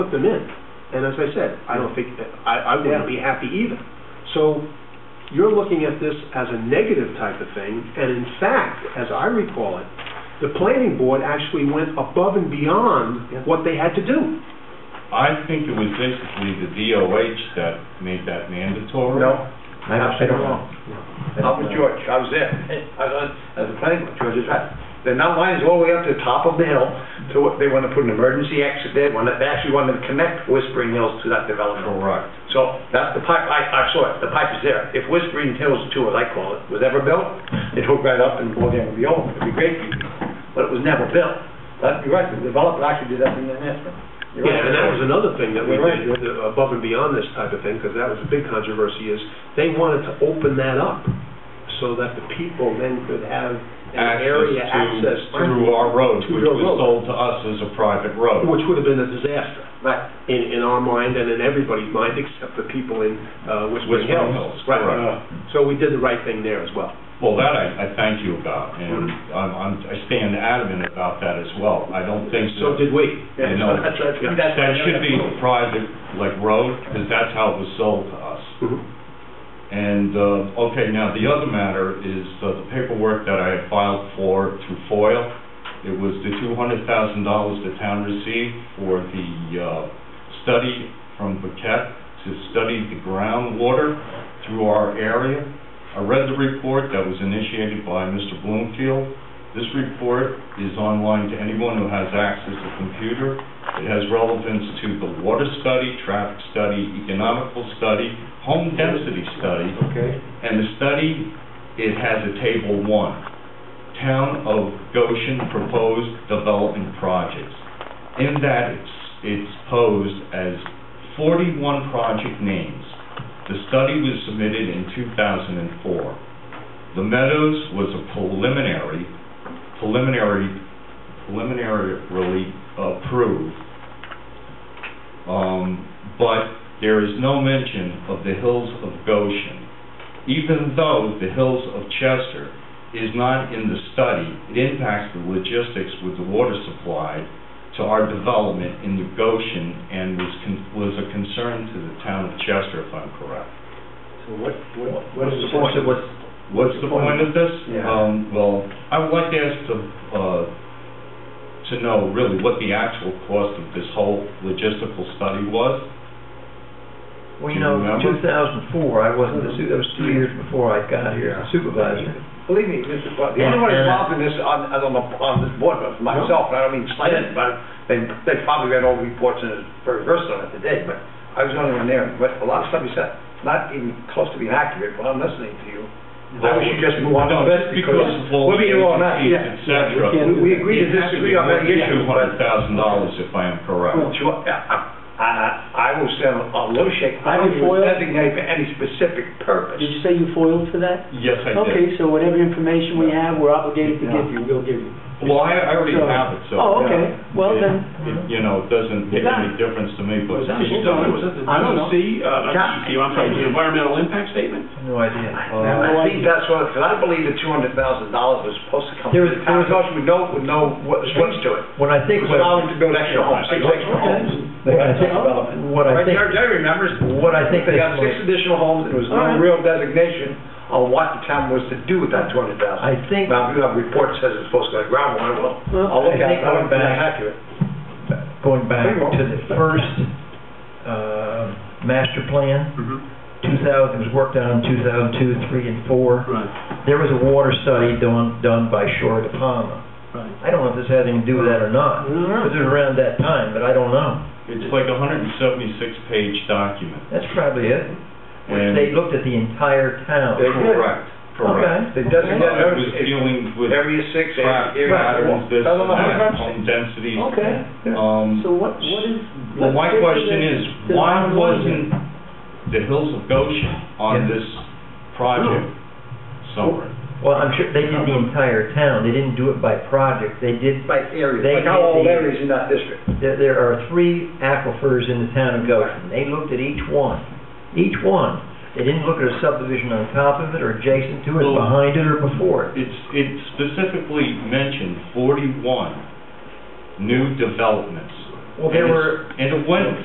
put them in. And as I said, I don't think, I, I wouldn't be happy either. So you're looking at this as a negative type of thing, and in fact, as I recall it, the planning board actually went above and beyond what they had to do. I think it was basically the DOH that made that mandatory. No, I don't, I don't know. I'm with George, I was there, I was on, as a planning board, George is right. The now line's all the way up to the top of the hill, so they want to put an emergency exit there, wanna- they actually want to connect Whispering Hills to that development. Correct. So that's the pipe, I, I saw it, the pipe is there. If Whispering Hills Two, as I call it, was ever built, it hooked right up and all the would be open, it'd be great for you. But it was never built. That, you're right, the developer actually did that in the announcement. You're Yeah, right. and that was another thing that we You're right. did, uh, above and beyond this type of thing, because that was a big controversy, is they wanted to open that up so that the people then could have an area access Access to, to, through our road, To which your was road. sold to us as a private road. which would have been a disaster. Right. in, in our mind and in everybody's mind, except the people in uh, Whispering Hills. Whispering Hills, Right. correct. So we did the right thing there as well. Well, that I, I thank you about, and I'm, I'm, I stand adamant about that as well. I don't think So that, did we. you know, That's, that's, that's. that should be a private, like, road, because that's how it was sold to us. Mm-hmm. And, uh, okay, now, the other matter is uh, the paperwork that I had filed for through FOIL. It was the two hundred thousand dollars the town received for the, uh, study from Paquette to study the groundwater through our area. I read the report that was initiated by Mr. Bloomfield. This report is online to anyone who has access to computer. It has relevance to the water study, traffic study, economical study, home density study, Okay. and the study, it has a table one, Town of Goshen Proposed Development Projects. In that, it's, it's posed as forty-one project names. The study was submitted in two thousand and four. The Meadows was a preliminary, preliminary, preliminarily approved. Um, but there is no mention of the Hills of Goshen even though the hills of Chester is not in the study, it impacts the logistics with the water supply to our development in the Goshen and was, con- was a concern to the town of Chester, if I'm correct. So what, what, what What's is the the point? point of what's, What's the point of this? Yeah. Um, well, I would like to ask the, uh, to know really what the actual cost of this whole logistical study was. well, Do you you know, remember? two thousand and four, I wasn't, the su- that was two years before I got here as a supervisor. uh, Believe me, Mr. Clark, the only one involved in this on, on the, on this board was myself, and I don't mean slight it, but they, they probably read all the reports and is very versed on it today, but I was the only one there, but a lot of stuff you said, not even close to being accurate, when I'm listening to you. I wish you'd just move on to No, this, just because of all we'll the be here all night, agencies, yeah. et cetera. We- we agree to disagree on that issue, Two hundred thousand dollars, if I am correct. Well, sure, I, I, I will stand on low shake, I Are don't even you foiled? designate for any specific purpose. Did you say you foiled for that? Yes, I did. Okay, so whatever information we have, we're obligated to give you, we'll give you. Well, I, I already So- have it, so. Oh, okay, well it- then, it, You know, it doesn't make any difference to me, but. Was that hold on, was the I don't know. DEC, uh, Yeah. DEC, I'm sorry, the environmental impact statement? No idea. I Uh, think that's what, because I believe the two hundred thousand dollars was supposed to come. There from the was- town of Goshen would know, would know what, what's to it. When I It think, was what, allowing to build extra homes, six extra homes. when I think, what Right, I think, Jerry, Jerry remembers. what I think They that's got six what- additional homes, and there was no real designation on what the town was to do with that two hundred thousand. I think, Now, if you have a report that says it's supposed to go to groundwater, well, Well, I'll look I at it, I think wouldn't be going back- accurate. going back Pretty well. to the first, uh, master plan, Mm-hmm. two thousand, was worked on in two thousand two, three, and four. Right, There was a water study done, done by Shore de Palma. right. I don't know if this had anything to do with that or not, Mm-hmm. because it was around that time, but I don't know. It's like a hundred and seventy-six page document. That's probably it. And- They looked at the entire town. They did. Correct, correct. They Uh, Okay. It was designated dealing with area six, track area. patterns, this Doesn't and know how to that, fence it. home density. okay, Um, so what, what is? well, my let's get to question the- is, the why bottom line here. wasn't the Hills of Goshen on Yeah. this project Oh. somewhere? Well, I'm sure they did the entire town. They didn't do it by project. They did, Like areas, They like how did old the- areas in that district. there, there are three aquifers in the town of Goshen. They looked at each one, each one. They didn't look at a subdivision on top of it or adjacent to it, Well- behind it or before it. It's, it specifically mentioned forty-one new developments. Well, there And were, it's- And it went